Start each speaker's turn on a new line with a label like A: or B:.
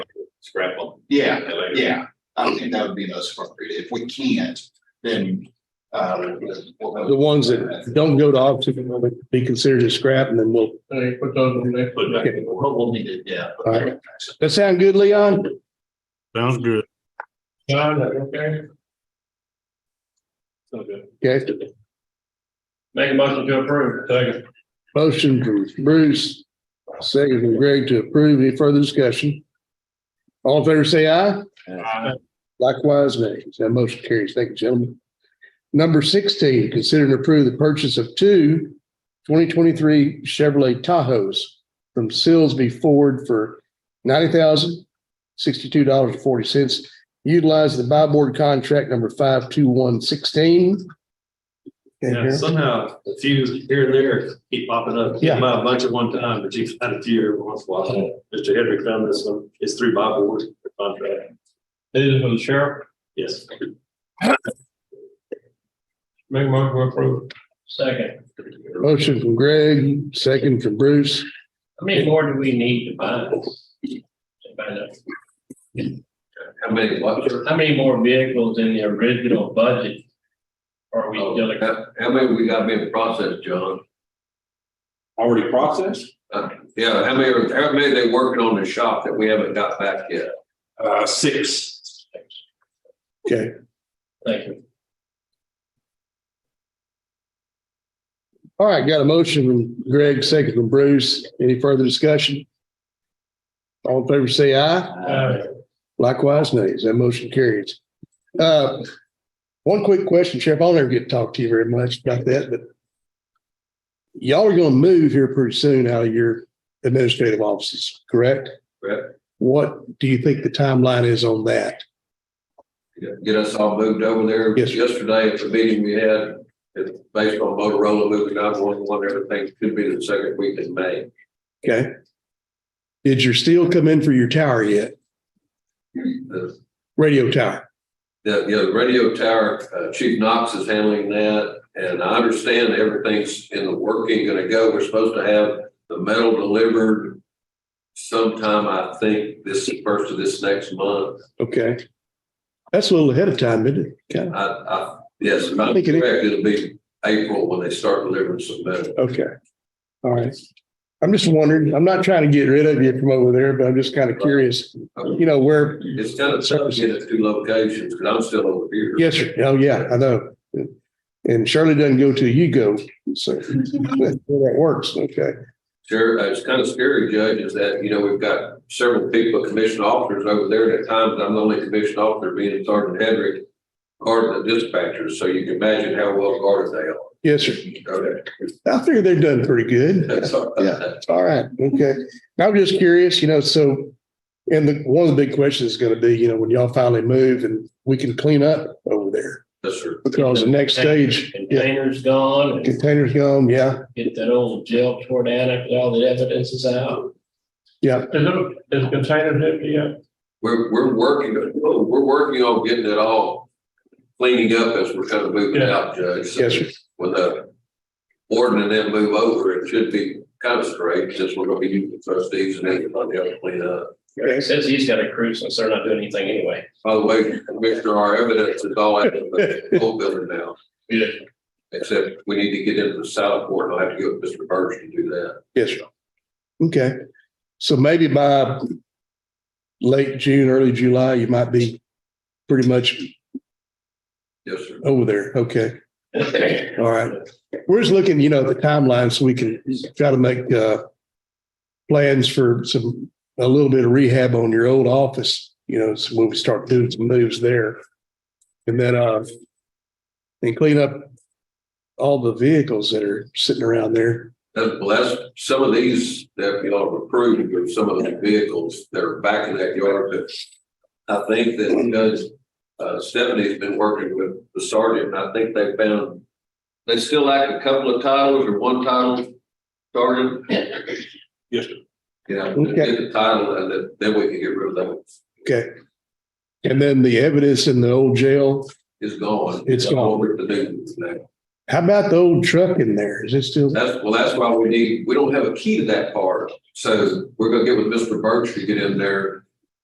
A: scrap them.
B: Yeah,
A: Later.
B: yeah, I don't think that would be the most appropriate. If we can't, then, uh, we'll-
C: The ones that don't go to auction will be considered as scrap and then we'll,
D: They put those in there.
A: Put back in the world.
B: But we'll need it, yeah.
C: All right. that sound good, Leon?
E: Sounds good.
D: John, that okay?
A: So good.
C: Okay,
D: Make a motion to approve. Second.
C: motion from Bruce, second from Greg to approve. Any further discussion? All in favor, say aye. Likewise, nay. That motion carries. Thank you, gentlemen. Number sixteen, consider and approve the purchase of two 2023 Chevrolet Tahoes from Silsby Ford for ninety thousand sixty-two dollars and forty cents. Utilize the buy board contract number five two one sixteen.
A: Yeah, somehow a few here and there keep popping up.
C: Yeah.
A: Buy a bunch at one time, but you find a few every once in a while. Mr. Hendrick found this one. It's through Bob Ward contract.
D: These are for the sheriff.
A: Yes.
D: Make a motion to approve. Second.
C: Motion from Greg, second from Bruce.
D: How many more do we need to buy? Buy that.
A: How many what?
D: How many more vehicles in the original budget? Are we still,
F: How, Oh, how many we got being processed, John?
A: Already processed?
F: Uh, yeah, how many, are- how many they working on the shop that we haven't got back yet?
A: Uh, six.
C: Okay,
D: thank you.
C: all right, got a motion from Greg, second from Bruce. Any further discussion? All in favor, say aye.
D: Uh,
C: Likewise, nays. That motion carries. Uh, one quick question, Sheriff. I'll never get to talk to you very much about that, but y'all are gonna move here pretty soon out of your administrative offices, correct?
F: Correct.
C: What do you think the timeline is on that?
F: Get- Get us all moved over there.
C: Yes, sir.
F: Yesterday at the meeting we had, it's based on Motorola moving nine one one, everything could be the second week in May.
C: Okay. Did your steel come in for your tower yet?
F: The,
C: Radio tower?
F: the, you know, the radio tower, uh, Chief Knox is handling that. And I understand everything's in the working gonna go. We're supposed to have the metal delivered sometime, I think, this first of this next month.
C: Okay. That's a little ahead of time, isn't it? Kind of.
F: I, I, yes, if I'm
C: Think it is.
F: correct, it'll be April when they start delivering some metal.
C: Okay. All right. I'm just wondering, I'm not trying to get rid of you from over there, but I'm just kind of curious, you know, where,
F: It's kind of tough getting at two locations, because I'm still over here.
C: yes, sir. Oh, yeah, I know. And Shirley doesn't go to you go, so that works. Okay.
F: Sure, uh, it's kind of scary, Judge, is that, you know, we've got several people, commissioned officers over there, and at times I'm the only commissioned officer being Sergeant Hendrick, guarding the dispatchers, so you can imagine how well guarded they
C: Yes, sir.
F: are.
C: I figure they're done pretty good.
F: Okay.
C: All right. Okay. I'm just curious, you know, so, and the, one of the big questions is going to be, you know, when y'all finally move and we can clean up over there
F: Yes, sir.
C: because the next stage, yeah,
D: Containers gone and
C: containers gone. Yeah.
D: get that old jail tore down after all the evidence is out.
C: Yeah.
D: Is it, is containers empty yet?
F: We're, we're working, oh, we're working on getting it all cleaning up as we're kind of moving
D: Yeah.
F: out, Judge. so-
C: Yes, sir.
F: when the board and then move over, it should be kind of straight, since we're gonna be using trustees and everybody else clean up.
C: Okay.
D: Says he's got a crew since they're not doing anything anyway.
F: By the way, Commissioner, our evidence is all out of the whole building now,
D: Yeah.
F: except we need to get into the south court, I'll have to go with Mr. Burge to do that.
C: Yes, sir. Okay, so maybe by late June, early July, you might be pretty much
F: Yes, sir.
C: over there. Okay, all right. We're just looking, you know, at the timeline so we can try to make uh plans for some, a little bit of rehab on your old office, you know, so when we start doing some moves there. And then uh and clean up all the vehicles that are sitting around there.
F: That's, well, that's, some of these that you all approved, or some of the vehicles that are back in that yard, but I think that because uh, Stephanie's been working with the sergeant, and I think they found, they still lack a couple of titles or one title, sergeant?
A: Yes,
F: Yeah, and get the title, and then, then we can get rid of that,
C: Okay. And then the evidence in the old jail,
F: it's gone.
C: It's gone.
F: Over to do now.
C: How about the old truck in there? Is it still?
F: That's, well, that's why we need, we don't have a key to that part, so we're gonna get with Mr. Birch to get in there